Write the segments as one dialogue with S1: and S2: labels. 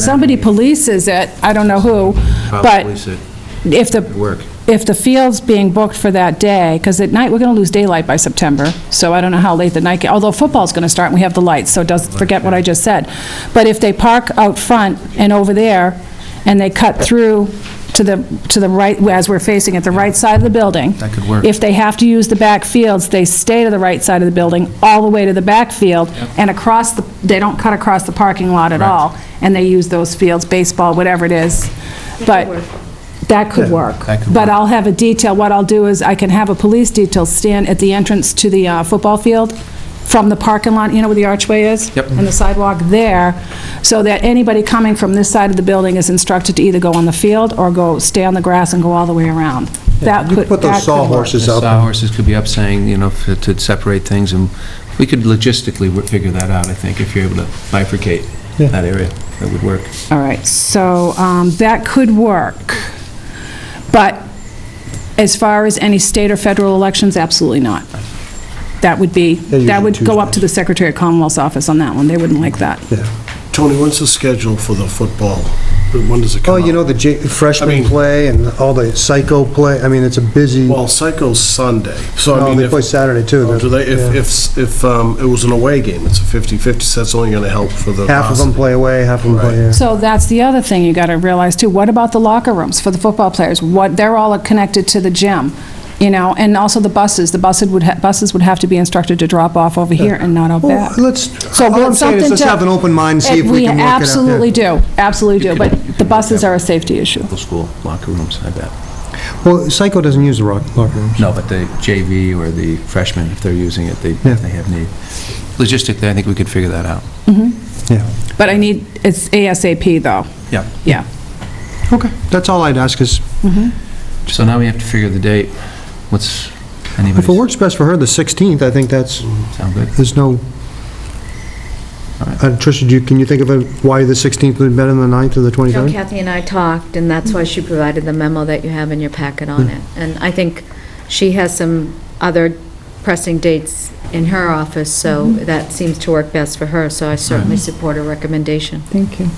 S1: somebody polices it, I don't know who,
S2: I'll
S1: but
S2: police it.
S1: if the,
S2: work.
S1: if the field's being booked for that day, because at night, we're going to lose daylight by September, so I don't know how late the night, ga- although football's going to start and we have the lights, so does, forget what I just said. But if they park out front and over there, and they cut through to the, to the right, as we're facing it, the right side of the building.
S2: That could work.
S1: If they have to use the back fields, they stay to the right side of the building, all the way to the back field, and across, the they don't cut across the parking lot at all, and they use those fields, baseball, whatever it is. But that could work.
S2: that could
S1: But
S2: work.
S1: I'll have a detail, what I'll do is I can have a police detail stand at the entrance to the uh, football field from the parking lot, you know where the archway is?
S2: Yep.
S1: And the sidewalk there, so that anybody coming from this side of the building is instructed to either go on the field or go, stay on the grass and go all the way around. That could, that
S3: You could
S1: could
S3: put
S1: work.
S3: those sawhorses
S2: The
S3: out.
S4: uh,
S2: sawhorses could be up saying, you know, f- to separate things, and we could logistically wo- figure that out, I think, if you're able to bifurcate
S3: Yeah.
S2: that area. That would work.
S1: All right, so um, that could work. But as far as any state or federal elections, absolutely not. That would be,
S3: They're
S1: that would
S3: usually
S1: go up to the Secretary of Commonwealth's office on that one. They wouldn't like that.
S4: Tony, when's the schedule for the football? When does it come
S3: Oh,
S4: out?
S3: you know, the J-
S4: I
S3: freshman
S4: mean-
S3: play and all the psycho play, I mean, it's a busy,
S4: Well, Psycho's Sunday, so I
S3: No,
S4: mean...
S3: they
S4: if-
S3: play Saturday, too.
S4: Oh, do they?
S3: Yeah.
S4: If, if, if um, it was an away game, it's a 50-50, so that's only going to help for the...
S3: half of them play away, half of them play here.
S1: So that's the other thing you got to realize too. What about the locker rooms for the football players? What, they're all connected to the gym, you know, and also the buses. The buses would, ha- buses would have to be instructed to drop off over here and not out
S3: Well,
S1: back.
S3: let's,
S1: So
S3: all
S1: but
S3: I'm saying is
S1: something
S3: let's
S1: to-
S3: have an open mind, see if
S1: And
S3: we can work it out. yeah.
S1: absolutely do, absolutely do, but the buses are a safety issue.
S2: Middle School locker rooms, I bet.
S3: Well, psycho doesn't use the rock- locker room.
S2: No, but the JV or the freshmen, if they're using it, they,
S3: Yeah.
S2: they have need. Logistically, I think we could figure that out.
S3: Yeah.
S1: But I need, it's ASAP though,
S2: Yeah.
S1: yeah.
S3: Okay, that's all I'd ask, is
S2: So now we have to figure the date. What's
S3: if it
S2: anybody's,
S3: works best for her, the 16th, I think that's,
S2: sound good?
S3: there's no, Uh, Tricia, do you, can you think of a- why the 16th would be better than the 9th or the
S5: No,
S3: 23rd?
S5: Kathy and I talked, and that's why she provided the memo that you have in your packet on it. And I think she has some other pressing dates in her office, so that seems to work best for her, so I certainly support her recommendation.
S1: Thank you.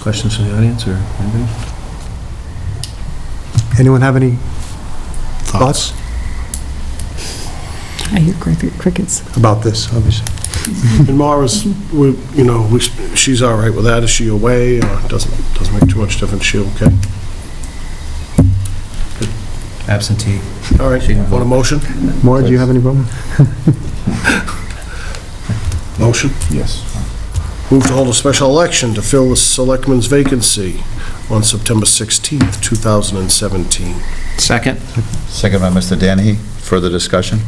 S2: Questions from the audience or anybody?
S3: Anyone have any thoughts
S1: I hear cricket- crickets.
S3: about this, obviously?
S4: And Mara's, we, you know, we- she's all right with that. Is she away, or doesn't, doesn't make too much difference? She okay?
S2: Absentee.
S4: All right,
S2: She can vote.
S4: want a motion?
S3: Maura, do you have any problem?
S4: Motion?
S6: Yes.
S4: Move to hold a special election to fill the selectman's vacancy on September 16th, 2017.
S2: Second?
S6: Second by Mr. Danahy. Further discussion?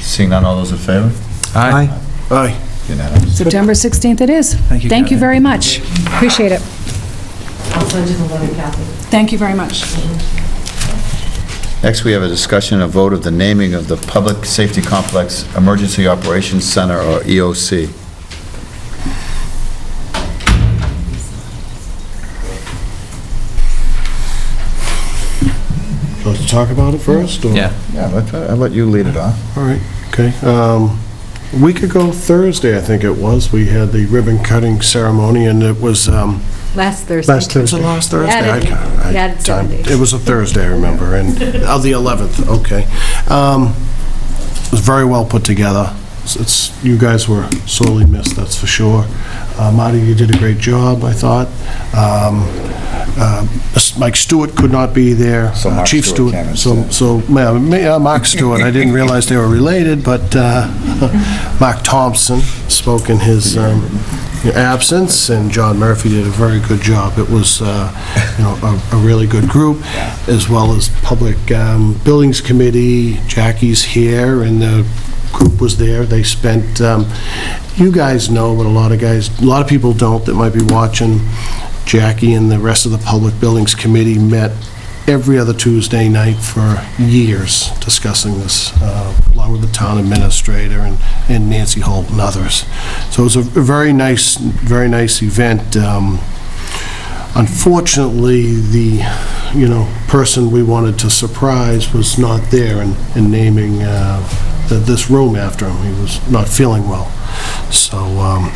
S6: Seeing none, all those in favor?
S3: Aye.
S4: Aye.
S6: Unanimous.
S1: September 16th it is.
S2: Thank you,
S1: Thank you
S2: Kathy.
S1: very much. Appreciate it. Thank you very much.
S6: Next, we have a discussion and vote of the naming of the Public Safety Complex Emergency Operations Center, or E EOC.
S4: Let's talk about it first, or?
S2: Yeah.
S6: Yeah, let- I'll let you lead it off.
S4: All right, okay. Um, A week ago Thursday, I think it was, we had the ribbon cutting ceremony, and it was, um,
S5: Last Thursday.
S3: Last
S4: was it
S3: Thursday.
S4: last Thursday? I
S5: Added-
S4: can't- I-
S5: added
S4: time-
S5: Saturday.
S4: It was a Thursday, I remember, and, oh, the 11th, okay. Um, It was very well put together. It's- It's, you guys were sorely missed, that's for sure. Uh, Marty, you did a great job, I thought. Um, uh, Mike Stewart could not be there. Uh,
S6: So Mark
S4: Chief
S6: Stewart
S4: Stewart.
S6: came
S4: So
S6: instead.
S4: so, ma- ma- uh, Mark Stewart, I didn't realize they were related, but uh, Mark Thompson spoke in his um, absence, and John Murphy did a very good job. It was, uh, you know, a- a really good group, as well as Public um, Buildings Committee, Jackie's here, and the group was there. They spent, um, you guys know, but a lot of guys, a lot of people don't that might be watching, Jackie and the rest of the Public Buildings Committee met every other Tuesday night for years discussing this, uh, along with the town administrator and and Nancy Holt and others. So it was a very nice, very nice event. Um, Unfortunately, the, you know, person we wanted to surprise was not there in in naming uh, th- this room after him. He was not feeling well. So um,